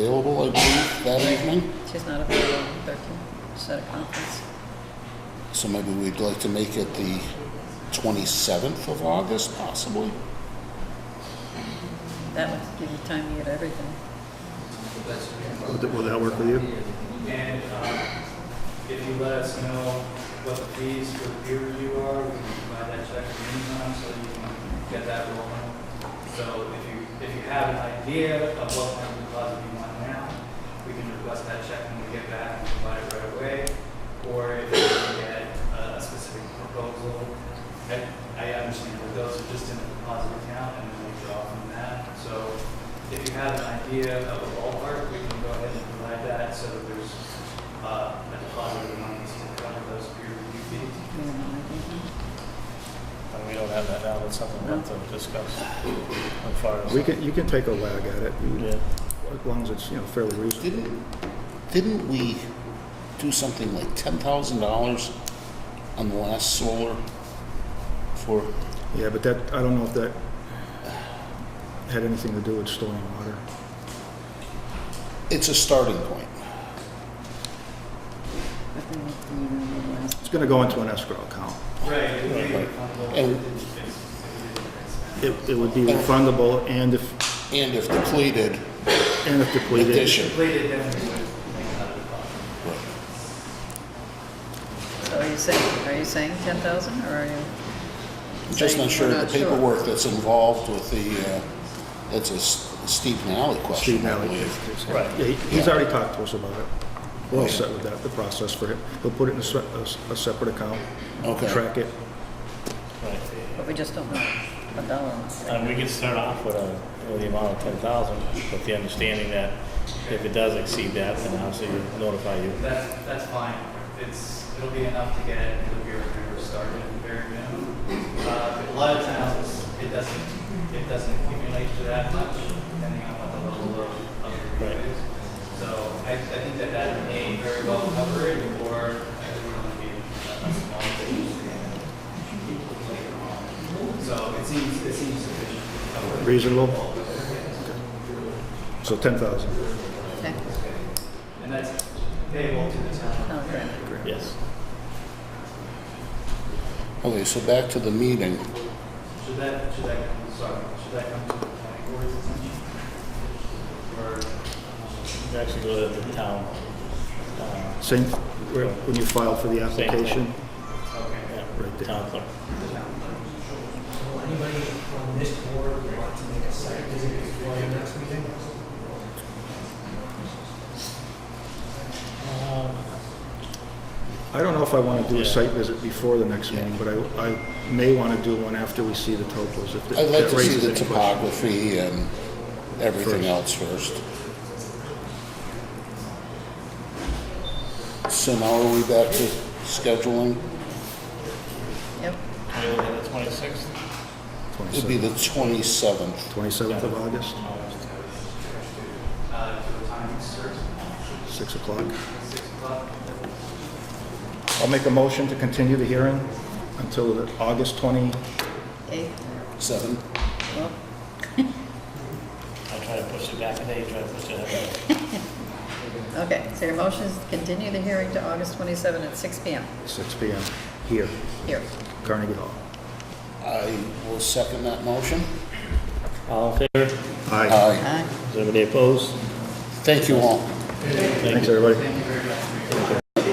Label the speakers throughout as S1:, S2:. S1: available, I believe, that evening.
S2: She's not available on the 13th, she's at a conference.
S1: So maybe we'd like to make it the 27th of August, possibly?
S2: That would give you time to get everything.
S3: Will that- will that work with you?
S4: And um, if you let us know what the fees for peer review are, we can provide that check in the meantime so you can get that rolling. So if you, if you have an idea of what kind of deposit you want now, we can request that check when we get back and provide it right away. Or if you can get a a specific proposal, I, I understand that those are just in the deposit account and then we draw from that. So if you have an idea of a ballpark, we can go ahead and provide that so that there's uh, a deposit amount to cover those peer review fees.
S2: You know, I think.
S5: And we don't have that now, that's something we have to discuss on Friday.
S3: We can, you can take a wag at it, you-
S5: Yeah,
S3: as long as it's, you know, fairly reasonable.
S1: Didn't, didn't we do something like $10,000 on the last solar for,
S3: Yeah, but that, I don't know if that had anything to do with storing water.
S1: it's a starting point.
S2: I think we need to realize
S3: It's gonna go into an escrow account.
S4: Right. it would be
S1: Right.
S4: refundable
S1: And-
S4: if it's- if it
S3: It, it would be refundable and if,
S1: And if depleted,
S3: and if depleted.
S4: is
S1: addition.
S4: Completed, then we would make another deposit.
S2: So are you saying, are you saying 10,000 or are you?
S1: Just not sure
S2: We're
S1: of the
S2: not sure.
S1: paperwork that's involved with the, uh, that's a S- Steve Nally
S3: Steve
S1: question, I
S3: Nally.
S1: believe.
S5: Right.
S3: Yeah, he- he's already talked to us about it. We're all set with that, the process for him. He'll put it in a se- a, s- a separate account.
S1: Okay.
S3: Track it.
S5: right.
S2: But we just don't know a dollar amount.
S5: And we can start off with a, with the amount of ten thousand, with the understanding that if it does exceed that, then obviously we'll notify you.
S4: That's, that's fine. It's, it'll be enough to get the peer reviewer started at the very minimum. Uh, but A lot of times, it doesn't, it doesn't accumulate to that much, depending on what the level of, of the
S5: Right.
S4: review is. So I, I think that that may very well cover it, or I think we're gonna be a small thing. later on. So it seems, it seems sufficient. to cover it.
S3: Reasonable? So ten thousand.
S2: Okay,
S4: And that's payable to the town.
S2: no, Oh, great.
S5: Yes.
S1: Okay, so back to the meeting.
S4: Should that, should that, come- sorry, should that come to the planning board's attention? Or, um,
S5: Actually go to the town. uh,
S3: Same, where- when you file for the
S5: thing.
S3: application,
S4: okay.
S5: yeah,
S3: Right there.
S5: Town clerk.
S6: Will anybody from this board want to make a site visit before the next meeting?
S3: I don't know if I want to do a
S5: Yeah.
S3: site visit before the next meeting, but I, I may want to do one after we see the topos. if that-
S1: I'd like to
S3: that
S1: see
S3: raises
S1: the
S3: any questions.
S1: topography and everything
S3: First.
S1: else first. So now are we back to scheduling?
S2: Yep,
S5: Can we look at the twenty-sixth?
S1: It'd be the 27th.
S3: 27th of August,
S4: Uh, to the timing, sir,
S3: 6 o'clock.
S4: Uh, six o'clock.
S3: I'll make a motion to continue the hearing until the August 20,
S2: eight,
S1: Seven?
S2: well,
S5: I try to push it back a day, try to push it ahead.
S2: okay. So your motion is to continue the hearing to August 27 at 6 PM
S3: 6 PM, here,
S2: here.
S3: Carnegie Hall.
S1: I will second that motion.
S5: All in favor?
S3: Aye.
S1: Aye.
S2: Aye.
S5: Is anybody opposed?
S1: Thank you all.
S3: Thanks, everybody.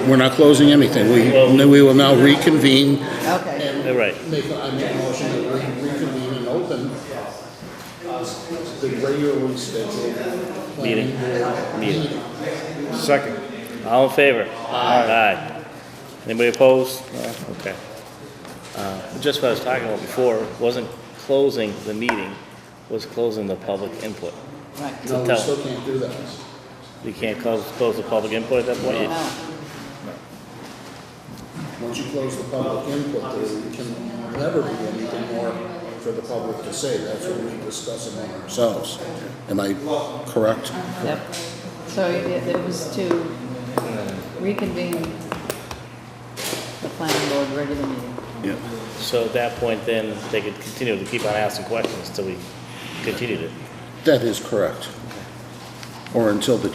S1: We're not closing anything. We, we will now reconvene.
S2: Okay.
S5: All right.
S1: Make, I make a motion that we reconvene and open the regularly scheduled planning
S5: Meeting.
S1: board
S5: Meeting.
S1: meeting.
S3: Second.
S5: All in favor? Aye. Anybody opposed? No? Okay. Uh, Just what I was talking about before, wasn't closing the meeting, was closing the public input.
S1: No, we
S5: tell-
S1: still can't do that.
S5: We can't close, close the public input at that point?
S2: No.
S1: Once you close the public input, there can never be anything more for the public to say. That's what we discuss among ourselves. Am I correct?
S2: Yep. So it it was to reconvene the planning board regular meeting.
S1: Yeah.
S5: So at that point, then, they could continue to keep on asking questions till we continued it.
S1: That is correct. Or until the